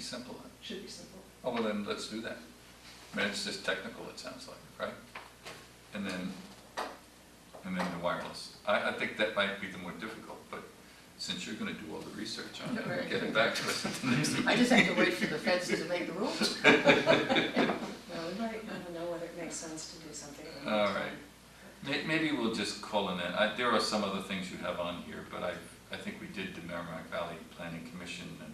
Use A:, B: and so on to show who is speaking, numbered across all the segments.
A: simple. then.
B: Should be simple.
A: Oh, well then, let's do that. I mean, it's just technical, it sounds like, right? And then, and then the wireless. I, I think that might be the more difficult, but since you're gonna do all the research on it, and get it back to us at the next meeting.
C: I just have to wait for the feds to make the rules.
B: Well, we might want to know whether it makes sense to do something. or not.
A: All right. May- Maybe we'll just call in it. I- There are some other things you have on here, but I, I think we did the Merrimack Valley Planning Commission and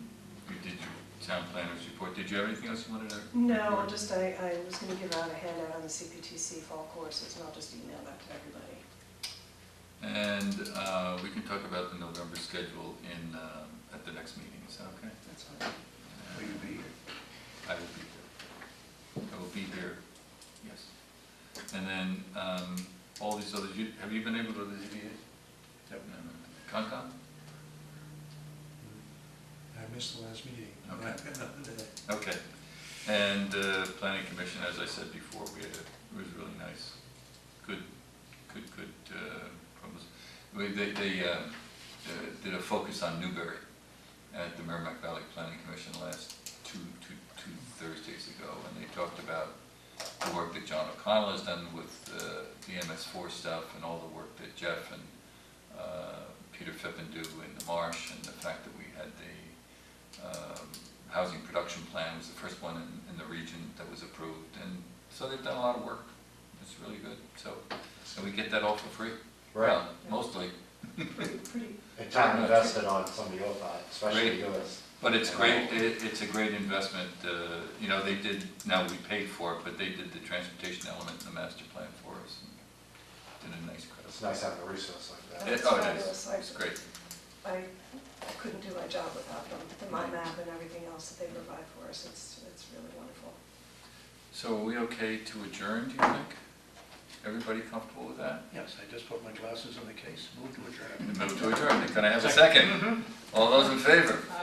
A: we did your town planners report. Did you have anything else you wanted to?
B: No,
A: report?
B: just I, I was gonna give out a handout on the CPTC fall courses, and I'll just email that to everybody.
A: And uh, we can talk about the November schedule in, um, at the next meeting, is that okay?
B: That's fine.
A: Will you be here? I will be here. I will be here, yes. And then, um, all these others, you, have you been able to visit yet? Yep. Concom?
D: I missed the last meeting. uh,
A: Okay.
D: I've got nothing today.
A: Okay. And uh, planning commission, as I said before, we had, a- it was really nice. Good, good, good, uh, promise. We- They, they uh, uh, did a focus on Newberry at the Merrimack Valley Planning Commission last two, two, two Thursdays ago. And they talked about the work that John O'Connell has done with uh, the MS four stuff and all the work that Jeff and uh, Peter Fippen do in the marsh and the fact that we had the um, housing production plan was the first one in, in the region that was approved, and so they've done a lot of work. It's really good, so, so we get that all for free?
E: Right,
A: Well, Mostly,
B: Pretty, pretty,
E: and time invested on some of your part, especially yours.
A: but it's great, it, it's a great investment, uh, you know, they did, now we paid for it, but they did the transportation element in the master plan for us, and did a nice credit.
E: It's nice having a resource like that.
A: It- Oh, it is, it's great,
B: I I couldn't do my job without them, the mind map and everything else that they provide for us, it's, it's really wonderful.
A: so are we okay to adjourn, do you think? Everybody comfortable with that?
D: Yes, I just put my glasses on the case, moved to adjourn.
A: Mm-hmm. Move to adjourn, can I have a second? All those in favor?
B: Aye.